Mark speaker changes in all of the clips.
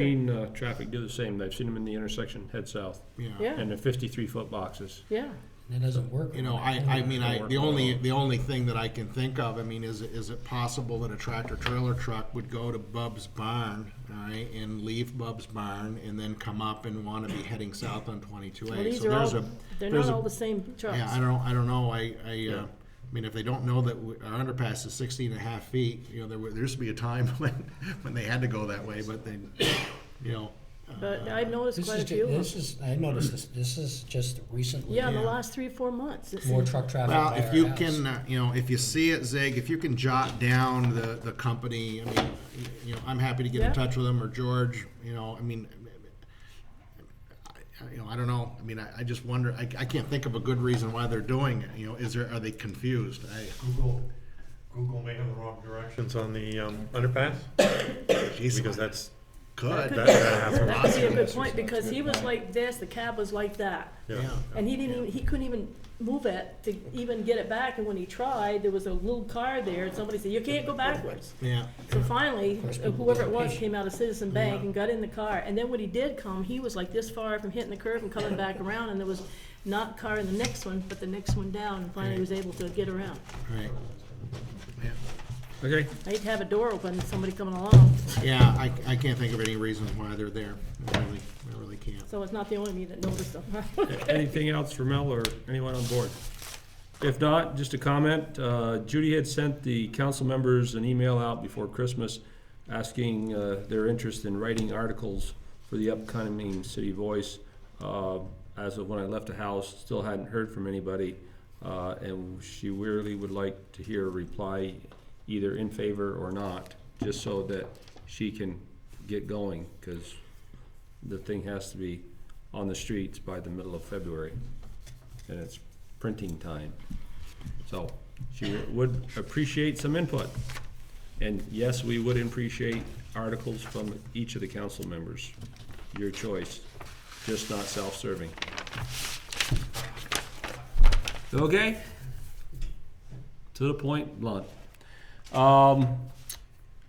Speaker 1: Seen, uh, traffic do the same, I've seen them in the intersection, head south,
Speaker 2: Yeah.
Speaker 1: and they're fifty-three foot boxes.
Speaker 2: Yeah,
Speaker 3: It doesn't work.
Speaker 4: You know, I, I mean, I, the only, the only thing that I can think of, I mean, is, is it possible that a tractor trailer truck would go to Bub's Barn, all right, and leave Bub's Barn and then come up and wanna be heading south on twenty-two
Speaker 2: well,
Speaker 4: A?
Speaker 2: these
Speaker 4: So
Speaker 2: are
Speaker 4: there's a
Speaker 2: all, they're
Speaker 4: there's
Speaker 2: not
Speaker 4: a-
Speaker 2: all the same
Speaker 4: Yeah, I
Speaker 2: trucks.
Speaker 4: don't, I don't know, I, I, uh, I mean, if they don't know that we- our underpass is sixteen and a half feet, you know, there were, there used to be a time when, when they had to go that way, but they, you know. uh,
Speaker 2: But I've noticed
Speaker 3: This
Speaker 2: quite
Speaker 3: is,
Speaker 2: a few
Speaker 3: ju-
Speaker 2: of them.
Speaker 3: this is, I noticed this, this is just recently.
Speaker 2: Yeah, in the
Speaker 4: yeah.
Speaker 2: last three, four months. it's-
Speaker 3: More truck traffic.
Speaker 4: Well,
Speaker 3: by
Speaker 4: if
Speaker 3: our
Speaker 4: you
Speaker 3: house.
Speaker 4: can, uh, you know, if you see it, Zig, if you can jot down the, the company, I mean, y- you know, I'm happy to get
Speaker 2: Yeah.
Speaker 4: in touch with them, or George, you know, I mean, I- you know, I don't know, I mean, I, I just wonder, I, I can't think of a good reason why they're doing it, you know, is there, are they confused? I,
Speaker 5: Google, Google may have the wrong directions on the um, underpass,
Speaker 4: geez,
Speaker 5: because that's, that,
Speaker 4: could,
Speaker 5: that happens.
Speaker 2: That could be a good point, because he was like this, the cab was like that,
Speaker 4: yeah.
Speaker 2: and he didn't even, he couldn't even move it to even get it back, and when he tried, there was a little car there, and somebody said, you can't go backwards.
Speaker 4: Yeah,
Speaker 2: So finally,
Speaker 3: course, people
Speaker 2: whoever it
Speaker 3: get
Speaker 2: was
Speaker 3: impatient.
Speaker 2: came out of Citizen
Speaker 4: Yeah.
Speaker 2: Bank and got in the car, and then when he did come, he was like this far from hitting the curb and coming back around, and there was not car in the next one, but the next one down, and finally he was able to get around.
Speaker 4: right, yeah.
Speaker 1: Okay,
Speaker 2: I hate to have a door open, somebody coming along,
Speaker 4: Yeah, I, I can't think of any reasons why they're there, I really, I really can't.
Speaker 2: so it's not the only me that noticed them.
Speaker 1: anything else for Mel or anyone on board? If not, just a comment, uh, Judy had sent the council members an email out before Christmas asking, uh, their interest in writing articles for the upcoming City Voice. Uh, as of when I left the house, still hadn't heard from anybody, uh, and she really would like to hear a reply either in favor or not, just so that she can get going, cause the thing has to be on the streets by the middle of February, and it's printing time. So she would appreciate some input. And yes, we would appreciate articles from each of the council members, your choice, just not self-serving. Okay? To the point, blunt. Um,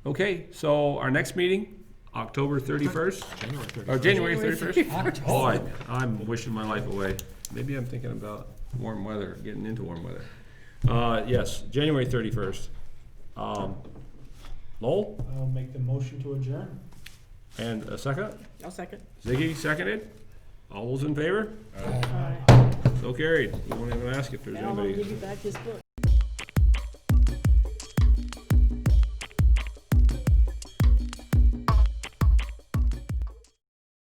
Speaker 1: okay, so our next meeting, October thirty-first?
Speaker 4: January thirty.
Speaker 1: Oh, January
Speaker 2: January
Speaker 1: thirty-first? Boy,
Speaker 3: October.
Speaker 1: Oh, I'm wishing my life away. Maybe I'm thinking about warm weather, getting into warm weather. Uh, yes, January thirty-first. Um, Lowell,
Speaker 6: I'll make the motion to adjourn.
Speaker 1: and a second?
Speaker 2: I'll second.
Speaker 1: Ziggy seconded? All those in favor?
Speaker 2: All right.
Speaker 1: So carried. You won't even ask if there's
Speaker 2: Now I'll
Speaker 1: anybody.
Speaker 2: give you back this book.